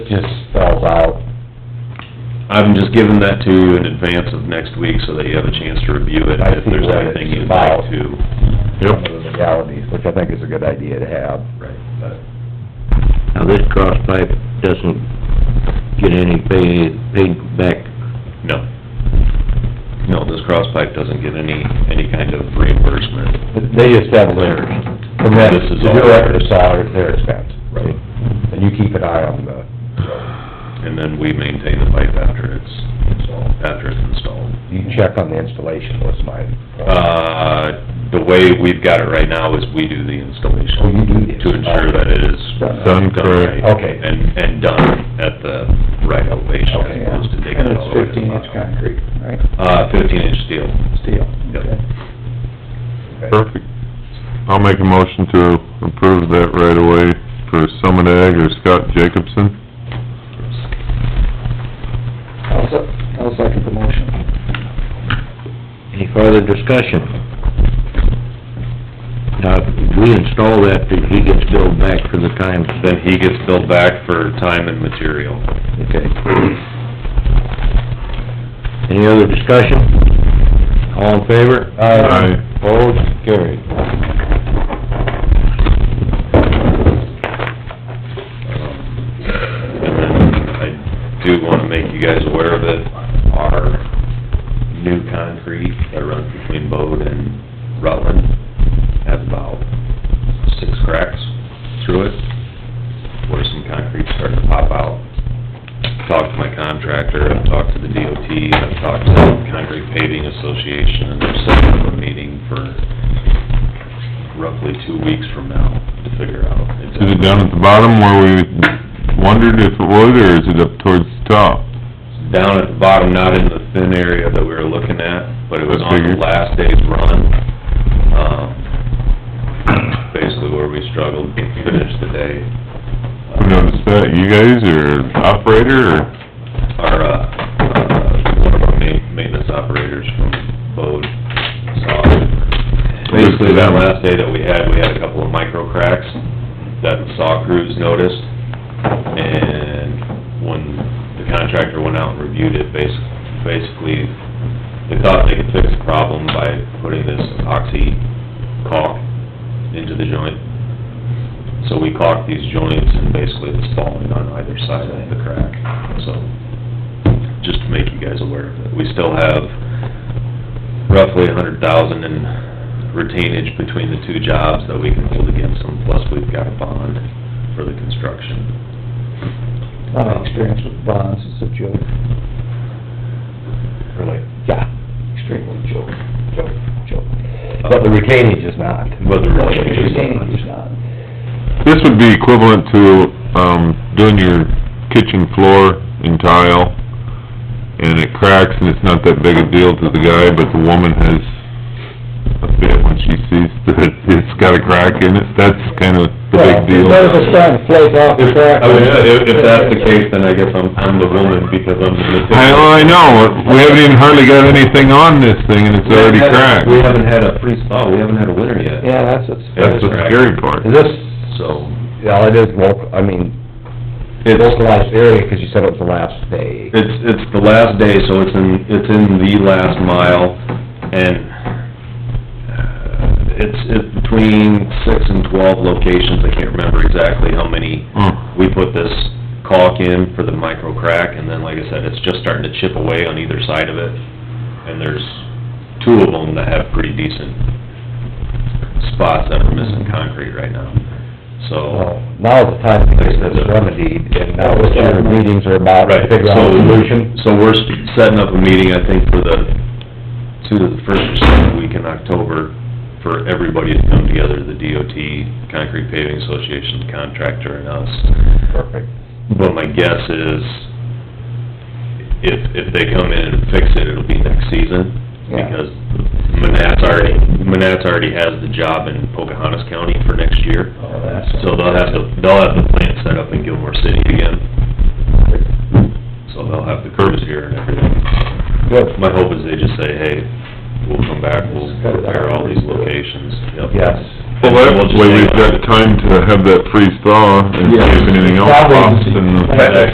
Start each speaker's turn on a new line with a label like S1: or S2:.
S1: It just spells out.
S2: I'm just giving that to you in advance of next week so that you have a chance to review it
S1: I
S2: if
S1: see
S2: there's
S1: what
S2: anything
S1: it's
S2: you'd like
S1: about.
S2: to.
S1: some of the Legalities, which I think is a good idea to have.
S2: Right, but
S3: Now, this cross pipe doesn't get any pay, paid back,
S2: No. No, this cross pipe doesn't get any, any kind of reimbursement.
S1: They just have their permit
S2: This
S1: to
S2: is
S1: do
S2: all-
S1: it, their salary, their expense.
S2: Right.
S1: And you keep an eye on the,
S2: And then we maintain the pipe after it's installed, after it's installed.
S1: you check on the installation was my point.
S2: Uh, the way we've got it right now is we do the installation.
S1: Oh, you do the
S2: To ensure that it is.
S1: Done.
S2: Done
S1: correct.
S2: right
S1: Okay.
S2: And, and done at the right elevation
S1: Okay,
S2: as
S1: yeah.
S2: opposed to digging it all the way to the bottom.
S1: concrete, right?
S2: Uh, fifteen inch steel.
S1: Steel.
S2: Yep.
S4: Perfect. I'll make a motion to approve that right away for Summit Ag or Scott Jacobson.
S5: I'll se- I'll second the motion.
S3: any further discussion? Now, if we install that, then he gets billed back for the time
S2: Then
S3: spent.
S2: he gets billed back for time and material.
S3: Okay. Any other discussion? All in favor?
S4: Aye.
S3: Opposed, carried.
S2: And then I do wanna make you guys aware of it, our new concrete that runs between Bode and Rutland has about six cracks through it, where some concrete's starting to pop out. Talked to my contractor, I've talked to the DOT, and I've talked to the Concrete Paving Association, and they're setting up a meeting for roughly two weeks from now to figure out.
S4: Is it down at the bottom where we wondered if it would, or is it up towards the top?
S2: down at the bottom, not in the thin area that we were looking at, but it was on the
S4: Figured.
S2: last day's run. Um, Basically where we struggled to finish the day.
S4: Who noticed that, you guys, or operator, or?
S2: Our, uh, uh, one of our ma- maintenance operators from Bode saw it. Basically, that last day that we had, we had a couple of micro cracks that the saw crews noticed. And when the contractor went out and reviewed it, basi- basically, they thought they could fix the problem by putting this epoxy caulk into the joint. So we caulked these joints and basically it's falling on either side of the crack, so, just to make you guys aware of it. We still have roughly a hundred thousand in retainage between the two jobs that we can hold against them, plus we've got a bond for the construction.
S5: My experience with bonds is a joke,
S1: Really,
S5: extremely joke, joke, joke.
S1: but the retainage is not.
S2: But the retainage is-
S5: Standing is not.
S4: This would be equivalent to, um, doing your kitchen floor in tile, and it cracks, and it's not that big a deal to the guy, but the woman has a fit when she sees that it's got a crack in it, that's kind of the big deal.
S5: Well, if it's starting to flake off the crack.
S2: I mean, if, if that's the case, then I guess I'm, I'm the woman because I'm the...
S4: I, well, I know, we haven't even hardly got anything on this thing, and it's already cracked.
S2: We haven't had a freeze thaw, we haven't had a winter yet.
S5: Yeah, that's what's.
S4: That's the scary part.
S1: Is this,
S2: So,
S1: yeah, it is local, I mean,
S2: it's,
S1: localized area, 'cause you said it was the last day.
S2: it's, it's the last day, so it's in, it's in the last mile, and uh, it's, it's between six and twelve locations, I can't remember exactly how many.
S4: Hmm.
S2: We put this caulk in for the micro crack, and then, like I said, it's just starting to chip away on either side of it, and there's two of them that have pretty decent spots that are missing concrete right now, so.
S1: Well, Now the time to get this remedied, and now what your meetings are about, to
S2: Right,
S1: figure
S2: so,
S1: out a solution.
S2: so we're setting up a meeting, I think, for the, to the first or second week in October, for everybody to come together, the DOT, Concrete Paving Association, contractor, and us,
S1: Perfect.
S2: But my guess is, if, if they come in and fix it, it'll be next season,
S1: Yeah.
S2: because Manat's already, Manat's already has the job in Pocahontas County for next year,
S1: Oh, that's-
S2: so they'll have to, they'll have the plant set up in Gilmore City again. So they'll have the crews here and everything.
S1: Good.
S2: My hope is they just say, hey, we'll come back, we'll
S1: Cut it out.
S2: repair all these locations, yep.
S1: Yes.
S4: Well, that way we've got time to have that freeze thaw, and see if anything else pops, and...
S2: That